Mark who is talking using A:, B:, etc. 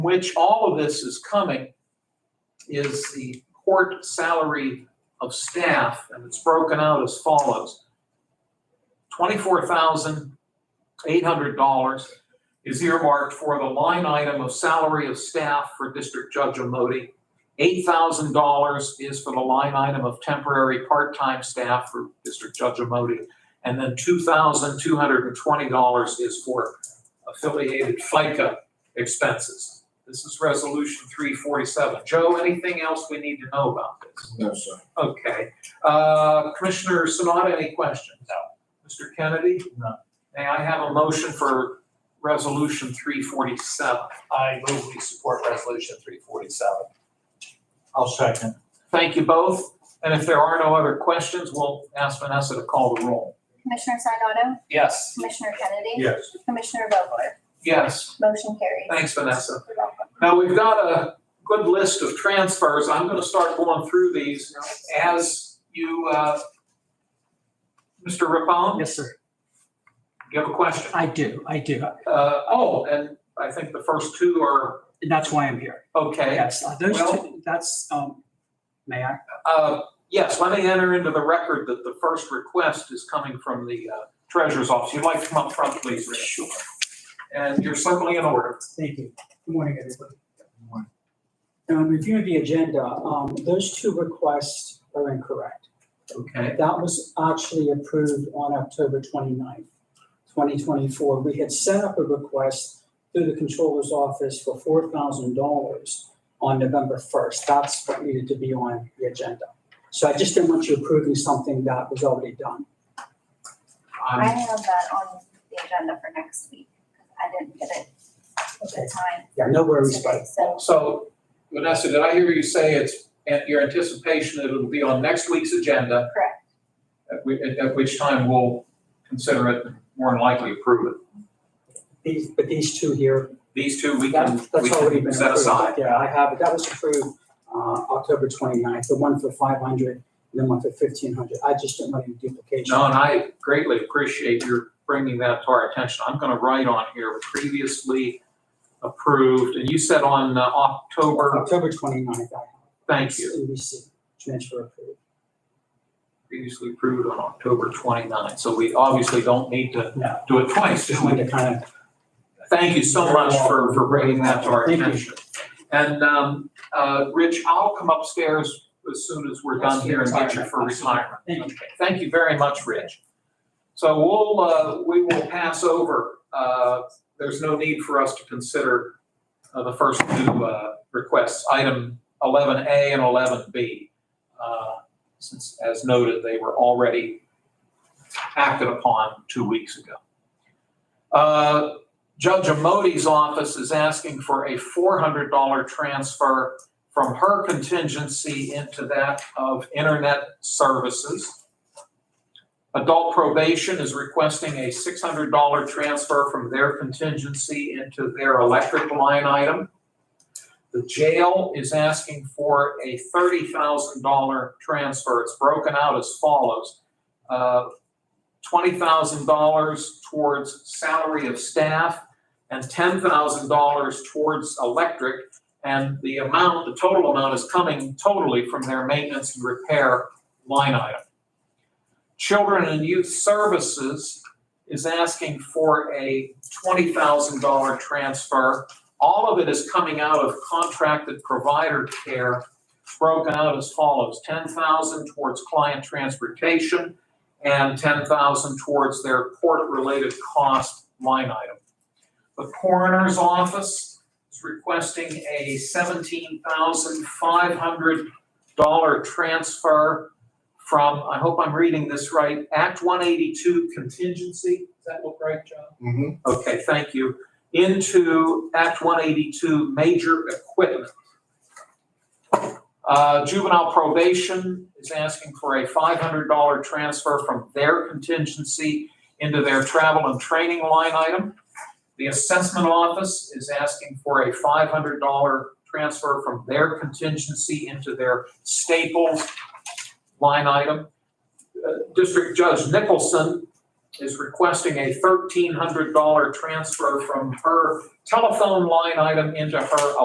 A: which all of this is coming, is the court salary of staff, and it's broken out as follows. Twenty-four thousand eight hundred dollars is earmarked for the line item of salary of staff for District Judge Amodi. Eight thousand dollars is for the line item of temporary part-time staff for District Judge Amodi. And then two thousand two hundred and twenty dollars is for affiliated FICA expenses. This is resolution three forty-seven. Joe, anything else we need to know about this?
B: No, sir.
A: Okay, uh, Commissioner Sanada, any questions? No. Mr. Kennedy?
C: No.
A: May I have a motion for resolution three forty-seven?
C: I move we support resolution three forty-seven. I'll second.
A: Thank you both, and if there are no other questions, we'll ask Vanessa to call the roll.
D: Commissioner Sinata,
C: Yes.
D: Commissioner Kennedy.
C: Yes.
D: Commissioner Vogler,
A: Yes,
D: motion carries.
A: thanks, Vanessa.
D: You're welcome.
A: Now, we've got a good list of transfers. I'm gonna start going through these as you, uh, Mr. Rippon,
E: Yes, sir.
A: you have a question?
E: I do, I do.
A: Uh, oh, and I think the first two are,
E: And That's why I'm here.
A: okay.
E: Yes, uh, those
A: Well-
E: two, that's, um, may I?
A: Uh, yes, let me enter into the record that the first request is coming from the uh, treasurer's office. You'd like to come up front, please, Rick?
E: Sure.
A: And you're suddenly in order.
E: Thank you. Good morning, everybody. Um, reviewing the agenda, um, those two requests are incorrect.
A: Okay.
E: That was actually approved on October 29th, twenty-four. We had set up a request through the controller's office for four thousand dollars on November first. That's what needed to be on the agenda. So I just didn't want you approving something that was already done.
D: I
A: Um,
D: have that on the agenda for next week, because I didn't get it at the time.
E: Yeah, no worries, but
D: today, So,
A: So Vanessa, did I hear you say it's, and your anticipation that it'll be on next week's agenda?
D: Correct.
A: At which, at which time we'll consider it, and more than likely approve it.
E: these, but these two here,
A: These two, we can,
E: that,
A: we
E: that's already
A: can
E: been
A: set
E: approved.
A: aside.
E: Yeah, I have, it. that was approved, uh, October 29th. the one for five hundred, and then one for fifteen hundred. I just didn't want any duplication.
A: John, I greatly appreciate your bringing that to our attention. I'm going to write on here previously approved, and you said on uh, October,
E: October 29th. I have.
A: thank you,
E: NBC, transfer approved.
A: previously approved on October 29. So we obviously don't need
E: No.
A: to do it twice, do
E: Just
A: we?
E: wanted to kind of,
A: Thank you so much for, for bringing that to our
E: Thank you.
A: attention. And, um, uh, Rich, I'll come upstairs as soon as we're done here and get you for retirement.
E: Thank
A: Okay, Thank you very much, Rich. So we'll, uh, we will pass over, uh, there's no need for us to consider uh, the first two, uh, requests, item eleven A and eleven B. Uh, since, as noted, they were already acted upon two weeks ago. Uh, Judge Amodi's office is asking for a $400 transfer from her contingency into that of internet services. Adult probation is requesting a $600 transfer from their contingency into their electric line item. The jail is asking for a $30,000 transfer. It's broken out as follows. Uh, $20,000 towards salary of staff, and ten thousand dollars towards electric. And the amount, the total amount is coming totally from their maintenance and repair line item. Children and Youth Services is asking for a twenty thousand dollar transfer. All of it is coming out of contracted provider care, broken out as follows. Ten thousand dollars towards client transportation and ten thousand dollars towards their court-related cost line item. The coroner's office is requesting a seventeen thousand five hundred dollar transfer from, I hope I'm reading this right, Act one eighty-two contingency, does that look right, John?
B: Mm-hmm.
A: Okay, thank you. Into Act 182, major equipment. Uh, Juvenile probation is asking for a $500 transfer from their contingency into their travel and training line item. The assessment office is asking for a $500 transfer from their contingency into their staples line item. Uh, District Judge Nicholson is requesting a thirteen hundred dollar transfer from her telephone line item into her